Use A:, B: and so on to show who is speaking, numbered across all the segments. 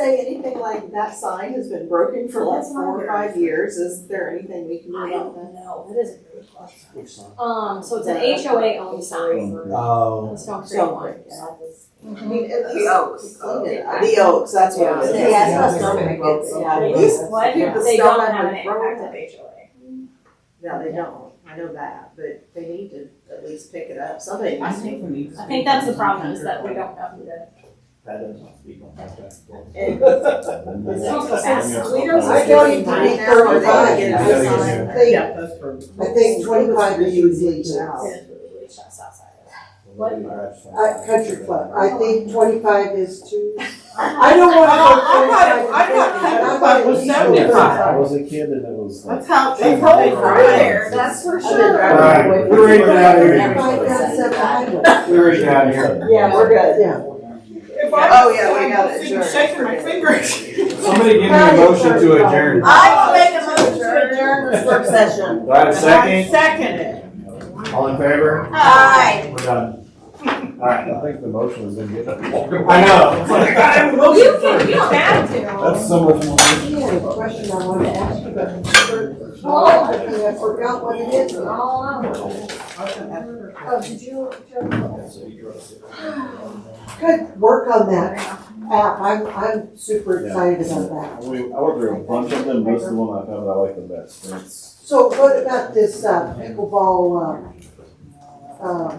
A: anything like that sign has been broken for like
B: That's my
A: four or five years, is there anything we can do
B: I
A: about that?
B: don't know, that is a really question.
C: Which song?
B: Um, so it's an
A: Yeah.
B: HOA owned
D: Mm,
B: sign,
C: Oh,
B: the Stone Creek
A: Stone
B: one.
A: Creek, yeah. I
B: Mhm.
A: mean, at least.
E: The Oaks.
A: Yeah, The oaks, that's what it is.
B: Yeah, Yeah,
C: that's
E: Stone Creek.
A: Yeah,
B: They
A: at
B: just-
A: least
B: what?
A: keep the
B: They
A: stone
B: don't
A: on
B: have
A: the
B: an
A: road.
B: impact of HOA.
A: No, they don't, I know that, but they need to at least pick it up, somebody
F: I
A: needs to.
F: think we need to.
B: I think that's the problem is that we don't know who to.
C: that doesn't, we don't have that.
B: It's also fast.
A: We don't
E: I
A: I
E: know
A: know
E: you can be
C: thirty-five,
A: get
C: yeah.
A: this
C: Yeah.
A: on.
E: I think,
F: Yeah, that's for.
E: I think twenty-five years leaves out.
B: It's really just outside of that.
E: Uh, country club, I think twenty-five is too. I
B: don't
E: don't wanna go
F: I'm not- I'm not
E: twenty-five.
F: country club was
D: I
F: 75.
D: was a kid and it was like.
F: That's how, that's how they run there.
A: That's for
E: sure.
D: Right, we're ready to get out of
E: Everybody
D: here.
E: got seven highways.
D: We're ready to get out of here.
A: Yeah, we're good.
E: Yeah.
F: If I
A: Oh,
F: was
A: yeah, we
F: saying,
A: got
F: I'm
A: it,
F: sitting
A: sure.
F: Shaking my fingers.
C: Somebody give me a motion to adjourn. Do
F: I will make a motion to
A: adjourn this work session.
D: I have a
F: I
D: second?
F: second it.
D: All in favor?
F: Aye.
D: We're done. All right.
G: I think the motion was in good.
D: I know. It's like, I have a motion
B: You can, you don't have
D: That's
B: to.
D: so much more.
E: I had a question I wanted to ask you, but I forgot-
G: Oh.
E: I forgot what it is. now.
B: All over. Oh, did you?
E: Good work on that app, I'm, I'm super excited about that.
G: We, I worked through a bunch of them, most of the one I found that I like the best, and it's.
E: So what about this uh, pickleball, uh, uh,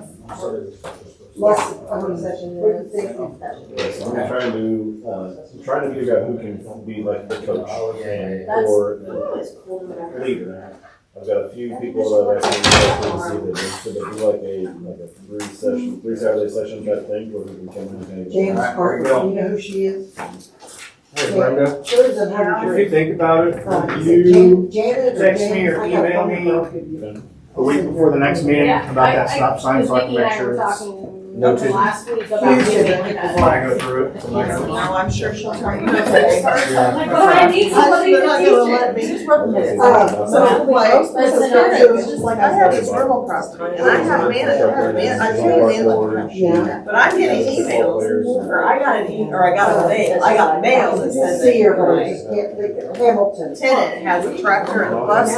E: lesson, I mean, session, what do you think?
G: I'm trying to, uh, I'm trying to figure out who can be like the coach
B: That's-
G: or the leader. I've got a few people that I think to see that, so they do like a, like a three session, three Saturday session type thing where we can come in and.
E: James Parker,
G: Well,
E: you know who she is?
C: Hey, Brenda,
E: There's a hundred.
C: if you think about it, you,
E: Uh, Jan- Janet or
C: text me or
E: Jan- I got
C: email
E: one
C: me.
E: girl could use it.
D: A week before the next meeting
B: Yeah,
D: about
B: I-
D: that stop sign, so I can make sure it's.
B: Vicky and I
C: noted.
B: were talking last week about
E: Here's your
B: doing
E: pickleball.
B: that.
C: when I go through it,
B: Like,
C: tonight.
A: I'm sure she'll tell you.
B: Like, well, I need somebody
A: They're not gonna
B: to
A: let
B: teach it.
A: me. So,
E: Uh,
A: like, Mrs. Perry was just like, I have these verbal crossword, and I have managed, I have managed, I can't even handle it.
G: É.
E: Yeah.
A: But I'm getting emails, or I got an email, or I got a mail, I got mail that says
E: See her, but I
A: that
E: just can't think of Hamilton.
A: tenant has a tractor and a bus